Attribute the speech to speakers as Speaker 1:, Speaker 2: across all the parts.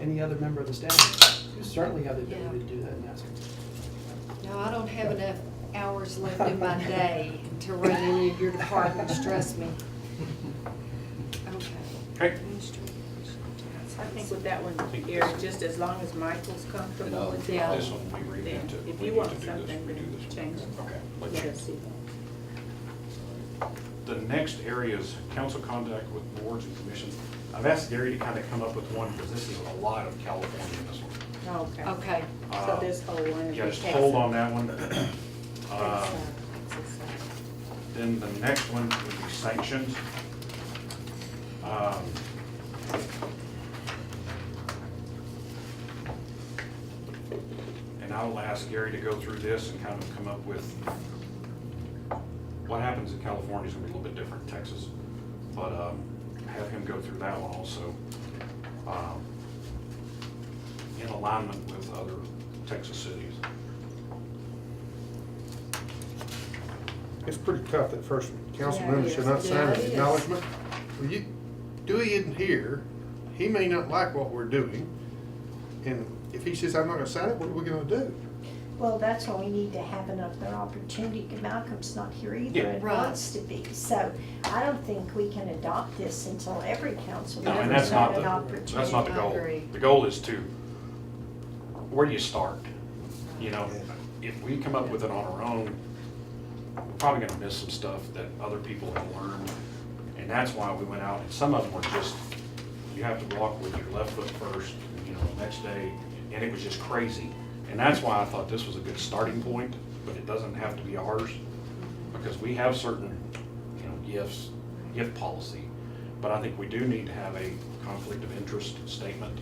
Speaker 1: any other member of the staff. You certainly have the ability to do that, and ask them.
Speaker 2: No, I don't have enough hours left in my day to run any of your departments, trust me. Okay.
Speaker 3: Okay.
Speaker 4: I think with that one, Eric, just as long as Michael's
Speaker 3: And
Speaker 4: comfortable
Speaker 3: I'll-
Speaker 4: with
Speaker 2: Yeah.
Speaker 4: that.
Speaker 3: This one, we read
Speaker 4: then
Speaker 3: into, we need
Speaker 4: If
Speaker 3: to
Speaker 4: you
Speaker 3: do
Speaker 4: want
Speaker 3: this,
Speaker 4: something,
Speaker 3: we do
Speaker 4: then
Speaker 3: this. one.
Speaker 4: change it.
Speaker 3: Okay. let's
Speaker 4: Let
Speaker 3: change.
Speaker 4: us see.
Speaker 3: The next area is council contact with boards and commissions. I've asked Gary to kind of come up with one, because this is a lot of California in this one.
Speaker 4: Okay.
Speaker 2: Okay,
Speaker 4: So this whole one.
Speaker 3: Yeah, just hold on that one. Uh, Then the next one would be sanctions. Um, And I'll ask Gary to go through this and kind of come up with, what happens in California is gonna be a little bit different in Texas, but um, have him go through that one also. um, In alignment with other Texas cities.
Speaker 5: It's pretty tough, that first one. council
Speaker 4: Yeah, it
Speaker 5: member
Speaker 4: is.
Speaker 5: should not sign
Speaker 2: Yeah,
Speaker 5: an
Speaker 2: it is.
Speaker 5: acknowledgement. Well, you, Dewey isn't here, he may not like what we're doing, and if he says, I'm not gonna sign it, what are we gonna do?
Speaker 6: Well, that's why we need to have another opportunity. Malcolm's not here either
Speaker 3: Yeah.
Speaker 6: and
Speaker 2: Right.
Speaker 6: wants to be. So I don't think we can adopt this until every council
Speaker 3: No, and
Speaker 6: member's
Speaker 3: that's not
Speaker 6: had
Speaker 3: the,
Speaker 6: an opportunity.
Speaker 3: that's not the
Speaker 2: I
Speaker 3: goal.
Speaker 2: agree.
Speaker 3: The goal is to, where do you start? You know, if we come up with it on our own, we're probably gonna miss some stuff that other people have learned. And that's why we went out, and some of them were just, you have to walk with your left foot first, you know, the next day, and it was just crazy. And that's why I thought this was a good starting point, but it doesn't have to be ours, because we have certain, you know, gifts, gift policy. But I think we do need to have a conflict of interest statement.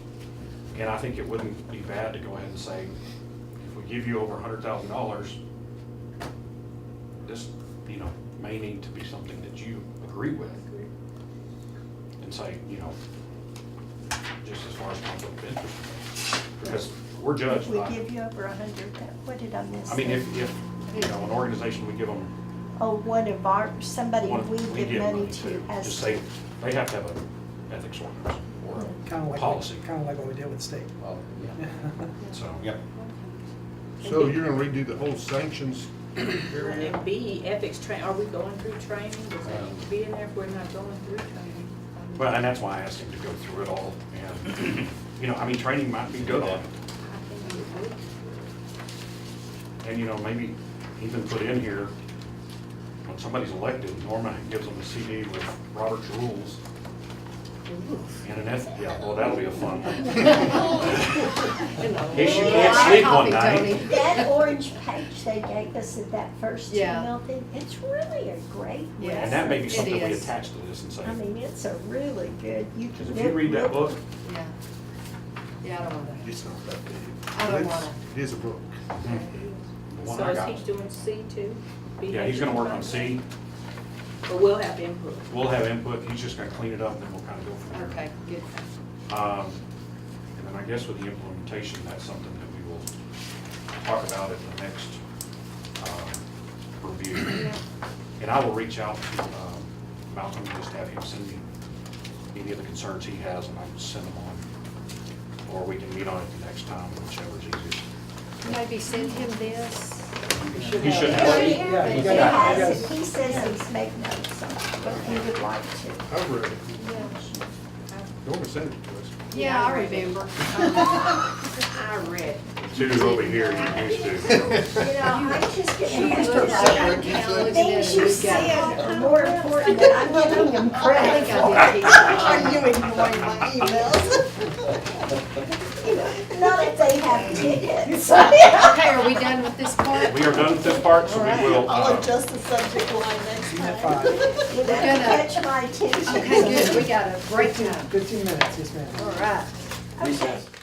Speaker 3: And I think it wouldn't be bad to go ahead and say, if we give you over a hundred thousand dollars, this, you know, may need to be something that you agree with. And say, you know, just as far as conflict of interest. Because we're
Speaker 6: If
Speaker 3: judged
Speaker 6: we
Speaker 3: by,
Speaker 6: give you over a hundred, what did I miss?
Speaker 3: I mean,
Speaker 6: there?
Speaker 3: if, if, you know, an organization, we give them
Speaker 6: Oh, one of our, somebody
Speaker 3: one-
Speaker 6: we
Speaker 3: we
Speaker 6: give money to has.
Speaker 3: Just say, they have to have an ethics ordinance or
Speaker 1: Kind of
Speaker 3: a
Speaker 1: like,
Speaker 3: policy,
Speaker 1: kind of like what we did with state.
Speaker 7: Well, yeah.
Speaker 3: so.
Speaker 7: Yep.
Speaker 5: So you're gonna redo the whole sanctions area?
Speaker 4: And B, ethics train, are we going through training? Does that need to be in there if we're not going through training?
Speaker 3: Well, and that's why I asked him to go through it all, and, you know, I mean, training might be good on it,
Speaker 4: I think we would.
Speaker 3: and, you know, maybe even put in here, when somebody's elected, Norma gives them a CD with Robert's Rules and an eth, yeah, well, that'll be a fun one.
Speaker 2: In
Speaker 3: case you can't sleep one
Speaker 6: That orange page they gave us at that first
Speaker 2: Yeah.
Speaker 6: email thing, it's really a great
Speaker 2: Yeah.
Speaker 6: lesson.
Speaker 3: And that may be something we
Speaker 2: It is.
Speaker 3: attach to this and say,
Speaker 6: I mean, it's a really good, you can.
Speaker 3: because if you read that book,
Speaker 2: Yeah, yeah, I don't want that.
Speaker 5: It's not that big.
Speaker 2: I don't
Speaker 5: It's-
Speaker 2: wanna.
Speaker 5: It is a book.
Speaker 3: Hmm. the one I
Speaker 4: So
Speaker 3: got,
Speaker 4: is he doing C too? B
Speaker 3: yeah, he's gonna work on C,
Speaker 4: But we'll have input.
Speaker 3: we'll have input, he's just gonna clean it up, and then we'll kind of go from there.
Speaker 2: Okay, good.
Speaker 3: Um, And then I guess with the implementation, that's something that we will talk about at the next um, review. And I will reach out to um, Malcolm, just have him send me any of the concerns he has, and I can send them on. Or we can meet on it the next time, whichever's easiest.
Speaker 2: Maybe send him this.
Speaker 3: He should have,
Speaker 6: He
Speaker 3: it.
Speaker 1: Yeah, you
Speaker 6: he
Speaker 1: gotta- you
Speaker 6: has,
Speaker 1: gotta-
Speaker 6: it. he says he's made notes on it, but he would like to.
Speaker 5: I've read it, Norma sent it to us.
Speaker 2: Yeah, I remember. I read.
Speaker 3: two over here, you used to.
Speaker 6: You know, I'm just getting.
Speaker 2: looked at it.
Speaker 6: The Things you said are more important than I'm giving them
Speaker 2: I
Speaker 6: credit
Speaker 2: think
Speaker 6: for.
Speaker 2: I did.
Speaker 6: Are you ignoring my emails? Not if they have tickets.
Speaker 2: Okay, are we done with this part?
Speaker 3: We are done with this part, so we will,
Speaker 8: I'll
Speaker 3: uh,
Speaker 8: adjust the subject line next
Speaker 1: You
Speaker 8: time.
Speaker 1: have five,
Speaker 6: You better catch my attention.
Speaker 2: Okay, good, we got a break now.
Speaker 1: fifteen minutes, yes, ma'am.
Speaker 2: All right.
Speaker 6: Okay.